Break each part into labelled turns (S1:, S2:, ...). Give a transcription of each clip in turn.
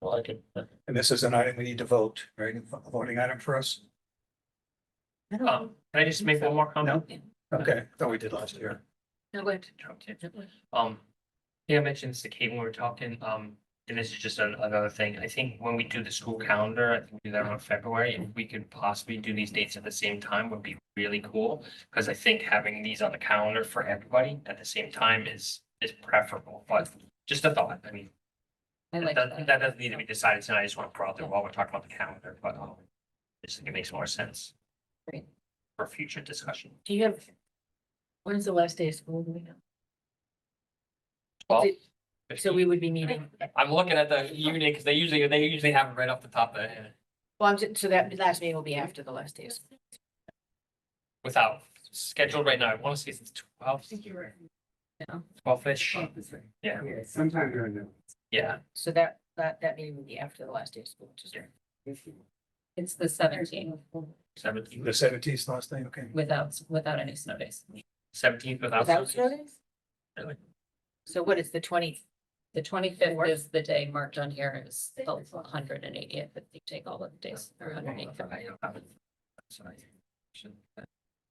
S1: Well, I could, uh,
S2: And this is an item we need to vote, right? A Voting item for us?
S1: um, can I just make one more comment?
S2: Okay, I thought we did last year.
S3: No, wait.
S1: Okay. Um, yeah, I mentioned this to Kate when we were talking, um, and this is just an- another thing. I think when we do the school calendar, I think we do that around February. If we could possibly do these dates at the same time would be really cool. Cause I think having these on the calendar for everybody at the same time is, is preferable, but just a thought, I mean.
S3: I
S1: That,
S3: like
S1: doesn't-
S3: that.
S1: that doesn't need to be decided tonight. I just want to throw out there while we're talking about the calendar, but, um, I just think it makes more sense.
S3: Great.
S1: For future discussion.
S3: Do you have? When's the last day of school, do we know?
S1: Well,
S3: Is it- So we would be meeting,
S1: I'm looking at the unit because they usually, they usually have it right off the top uh, of their head
S3: well, I'm, ju- so that last meeting will be after the last day of school.
S1: without scheduled right now. I want to see if it's twelve,
S3: No.
S1: twelve-ish. Yeah,
S4: Sometime during the.
S1: yeah.
S3: So that, that, that meeting will be after the last day of school, just. It's the seventeenth
S1: Seventeenth,
S2: The seventeenth last thing, okay.
S3: without, without any snow days.
S1: seventeenth without.
S3: Without snow
S1: notice.
S3: days? So what is the twenty? The twenty-fifth is the day marked on here is the hundred and eightieth, if you take all of the days, or hundred and eighty.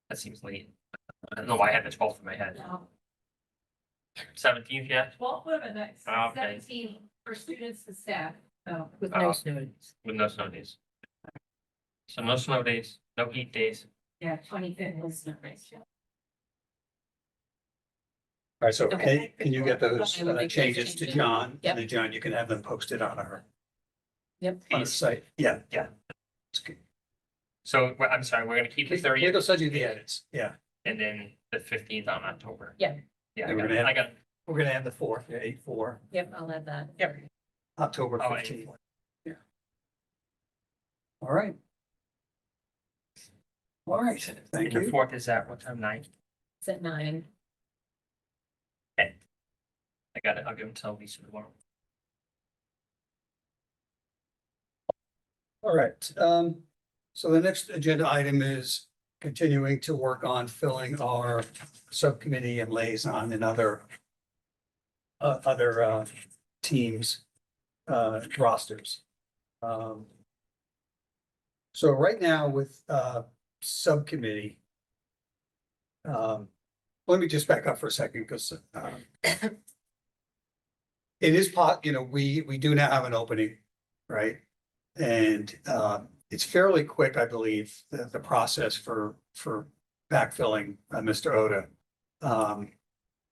S1: That seems late. I don't know why I had the twelfth in my head. Seventeenth, yeah,
S5: Um, Twelve would have been nice,
S1: Ah, okay.
S5: seventeen for students and staff. uh,
S3: Oh, with
S1: Oh.
S3: no snow days.
S1: with no snow days. So no snow days, no heat days.
S5: Yeah, twenty fifth.
S2: All right, so can,
S5: Okay.
S2: can you get those
S3: I will
S2: uh,
S3: make those
S2: changes to
S3: changes.
S2: John?
S3: Yep.
S2: And then John, you can have them posted on our,
S3: Yep.
S2: on our site. Yeah, yeah.
S1: So we're- I'm sorry, we're gonna keep the thirtieth
S2: They'll send you the edits. Yeah,
S1: and then the fifteenth on October.
S3: Yeah.
S1: Yeah, I
S2: And we're
S1: got,
S2: gonna have-
S1: I got,
S2: we're gonna have the fourth, yeah, eight, four,
S3: Yep, I'll add that.
S2: Yep. October
S1: Oh, eight,
S2: fifteenth. Yeah. All right. All right, thank
S1: and the
S2: you.
S1: fourth is at what time, nine?
S3: It's at nine.
S1: I got it, I'll give them till Lisa tomorrow.
S2: All right, um, so the next agenda item is continuing to work on filling our subcommittee and liaison and other uh, other, uh, teams, uh, rosters. Um, So right now with, uh, subcommittee, um, let me just back up for a second because, um, it is pot, you know, we, we do now have an opening, right? And um, it's fairly quick, I believe, the, the process for, for backfilling uh, Mr. Oda. Um,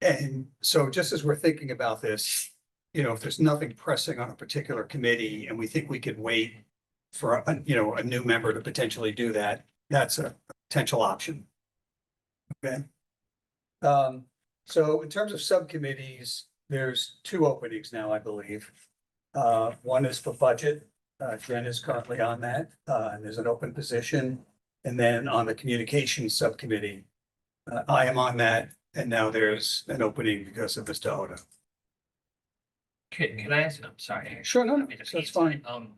S2: And so just as we're thinking about this, you know, if there's nothing pressing on a particular committee and we think we could wait for, a you know, a new member to potentially do that, that's a potential option. Okay. Um, So in terms of subcommittees, there's two openings now, I believe. Uh, One is for budget uh, Jen is currently on that, uh, and there's an open position. And then on the communications subcommittee, uh, I am on that, and now there's an opening because of Mr. Oda.
S1: Can, can I ask, I'm sorry.
S2: Sure, no, no,
S1: Let me just-
S2: that's fine.
S1: Um,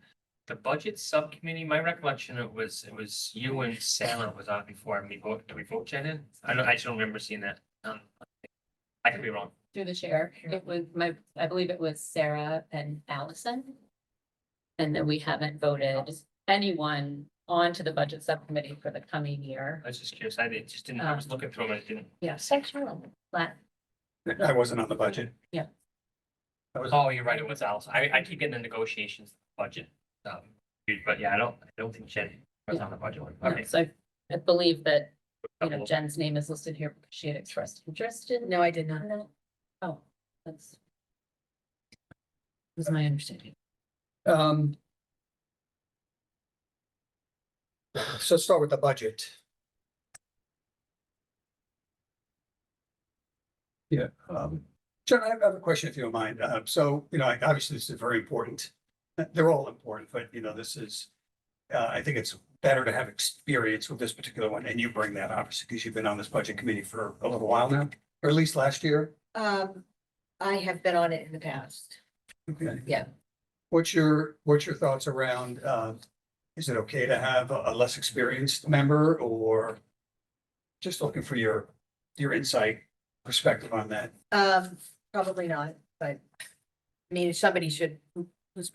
S1: the budget subcommittee, my recollection, it was, it was you and Sal was on before, and we vote, did we vote Jen in? I don't, I just don't remember seeing that. Um, I could be wrong.
S6: Through the chair, it was my, I believe it was Sarah and Allison. And then we haven't voted anyone onto the budget subcommittee for the coming year.
S1: I was just curious. I did- just didn't, I was
S6: Uh-huh.
S1: looking through them and I didn't.
S6: Yeah, sexual. But
S2: I wasn't on the budget.
S1: Oh, you're right, it was Allison. I, I keep getting the negotiations, budget. um, But yeah, I don't, I don't think Jen was on the budget one. Okay.
S6: so I- I believe that, you know,
S1: Double.
S6: Jen's name is listed here because she had expressed interest in.
S3: No, I did not.
S6: Oh, that's. Was my understanding.
S2: Um. So start with the budget. Yeah, um, John, I have I have a question if you don't mind. Uh, so, you know, like, obviously this is very important. Uh, They're all important, but you know, this is, uh, I think it's better to have experience with this particular one. And you bring that obviously because you've been on this budget committee for a little while now, or at least last year.
S3: Um, I have been on it in the past.
S2: Okay.
S3: Yeah.
S2: What's your, what's your thoughts around, uh, is it okay to have a a less experienced member or just looking for your, your insight perspective on that?
S3: Um, probably not, but I mean, somebody should